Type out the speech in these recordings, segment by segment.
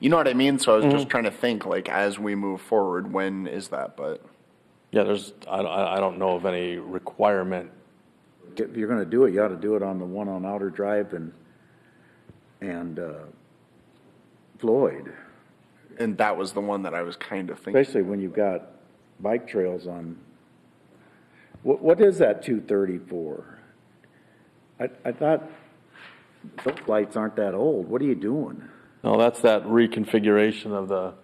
you know what I mean? So I was Mm-hmm. just trying to think, like, as we move forward, when is that? But Yeah, there's, I, I I don't know of any requirement. If you're gonna do it, you ought to do it on the one on Outer Drive and, and uh, Floyd, and that was the one that I was kind of thinking. especially when you've got bike trails on. What, what is that two thirty for? I, I thought those lights aren't that old. What are you doing? No, that's that reconfiguration of the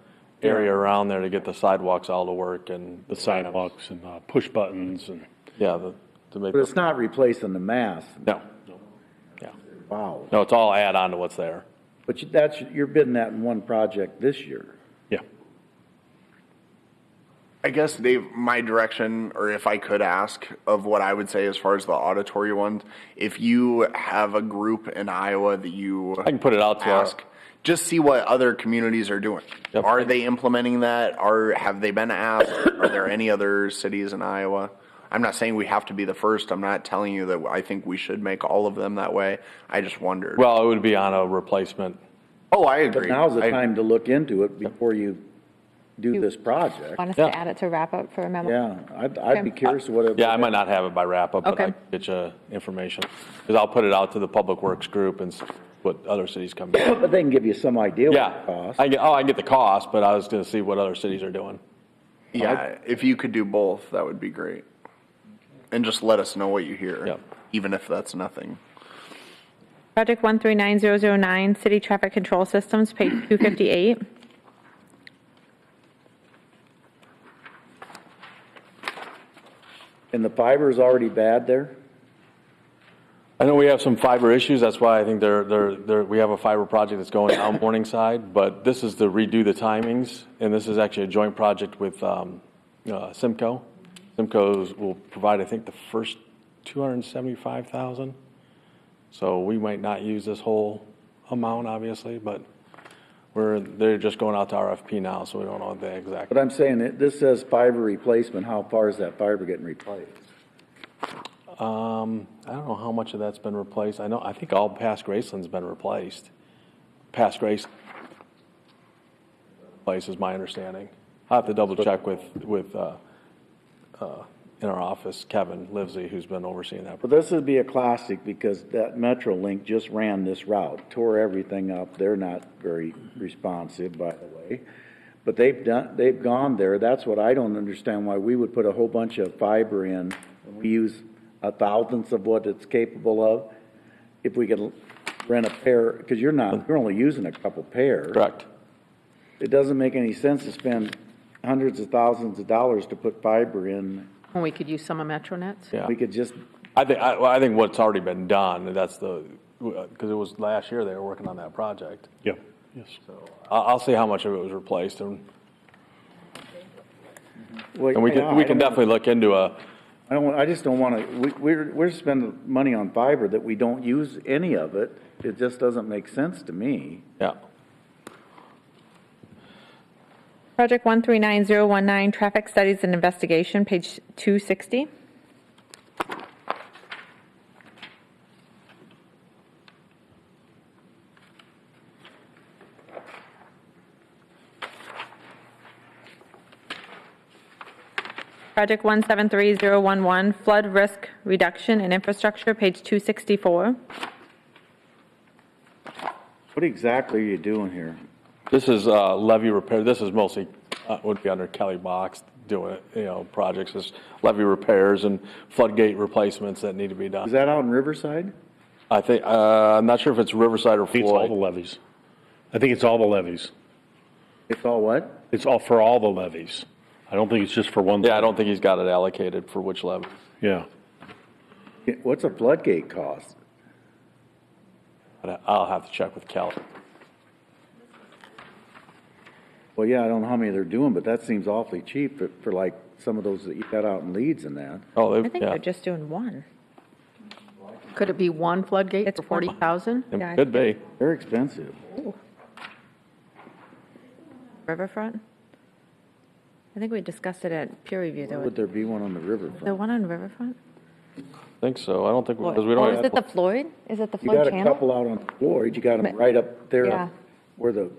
area around there to get the sidewalks all to work and. the sidewalks and uh, push buttons and Yeah, the, to make, But it's not replacing the mast. no. Yeah, Wow. no, it's all add on to what's there. But you- that's, you're bidding that in one project this year. yeah. I guess Dave, my direction, or if I could ask, of what I would say as far as the auditory ones, if you have a group in Iowa that you I can put it out to our, ask, just see what other communities are doing. Yep. Are they implementing that? Are have they been asked? are there any other cities in Iowa? I'm not saying we have to be the first. I'm not telling you that I think we should make all of them that way. I just wondered. well, it would be on a replacement. oh, I agree. But now's the I- time to look into it before you do this project. Want us Yeah. to add it to wrap up for a memo? Yeah, I'd, I'd be curious what it. Yeah, I might not have it by wrap up, but I Okay. can get you information. Cause I'll put it out to the public works group and see what other cities come back. But they can give you some idea what it Yeah, costs. I get, oh, I get the cost, but I was gonna see what other cities are doing. Yeah, if you could do both, that would be great. And just let us know what you hear, Yep. even if that's nothing. Project 139009, City Traffic Control Systems, page 258. And the fiber's already bad there? I know we have some fiber issues, that's why I think there, there, there, we have a fiber project that's going down Morningside, but this is to redo the timings, and this is actually a joint project with, um, uh, Simco. Simco's will provide, I think, the first two hundred and seventy-five thousand. So we might not use this whole amount, obviously, but we're, they're just going out to RFP now, so we don't know the exact. But I'm saying, it- this says fiber replacement, how far is that fiber getting replaced? Um, I don't know how much of that's been replaced. I know, I think all past Graceland's been replaced. Past Grace place is my understanding. I have to double check with, with, uh, uh, in our office, Kevin Livesey, who's been overseeing that. Well, this would be a classic because that MetroLink just ran this route, tore everything up. They're not very responsive, by the way. But they've done, they've gone there. That's what I don't understand why we would put a whole bunch of fiber in. We use a thousandth of what it's capable of. If we could rent a pair, because you're not, you're only using a couple pairs. Correct. It doesn't make any sense to spend hundreds of thousands of dollars to put fiber in. When we could use some of Metronet's? Yeah. We could just I think, I, well, I think what's already been done, that's the, because it was last year they were working on that project. Yeah. Yes. I'll, I'll see how much of it was replaced and, Well, and we yeah, can, we I can don't- definitely look into a, I don't, want- I just don't want to, we're, we're spending money on fiber that we don't use any of it. It just doesn't make sense to me. yeah. Project 139019, Traffic Studies and Investigation, page 260. Project 173011, Flood Risk Reduction and Infrastructure, page 264. What exactly are you doing here? This is uh, levee repair, this is mostly, uh, would be under Kelly Box doing, you know, projects, is levee repairs and floodgate replacements that need to be Is done. that out in Riverside? I think, uh, I'm not sure if it's Riverside or I think it's all the Floyd. levies. I think it's all the levies. It's all what? It's all for all the levies. I don't think it's just for one. Yeah, I don't think he's got it allocated for which levy. Yeah. What's a floodgate cost? But I- I'll have to check with Kelly. Well, yeah, I don't know how many they're doing, but that seems awfully cheap for, for like some of those that you got out in Leeds and that. Oh, I they, think yeah. they're just doing one. Could it be one floodgate It's for one. 40,000? yeah, I It Could be. They're expensive. Riverfront? I think we discussed it at peer review, though. Would there be one on the The riverfront? one on Riverfront? Think so. I don't think, because we Oh, don't is have, it the Floyd? Is it the You got Floyd a Channel? couple out on Floyd, you got them right up Yeah. there where the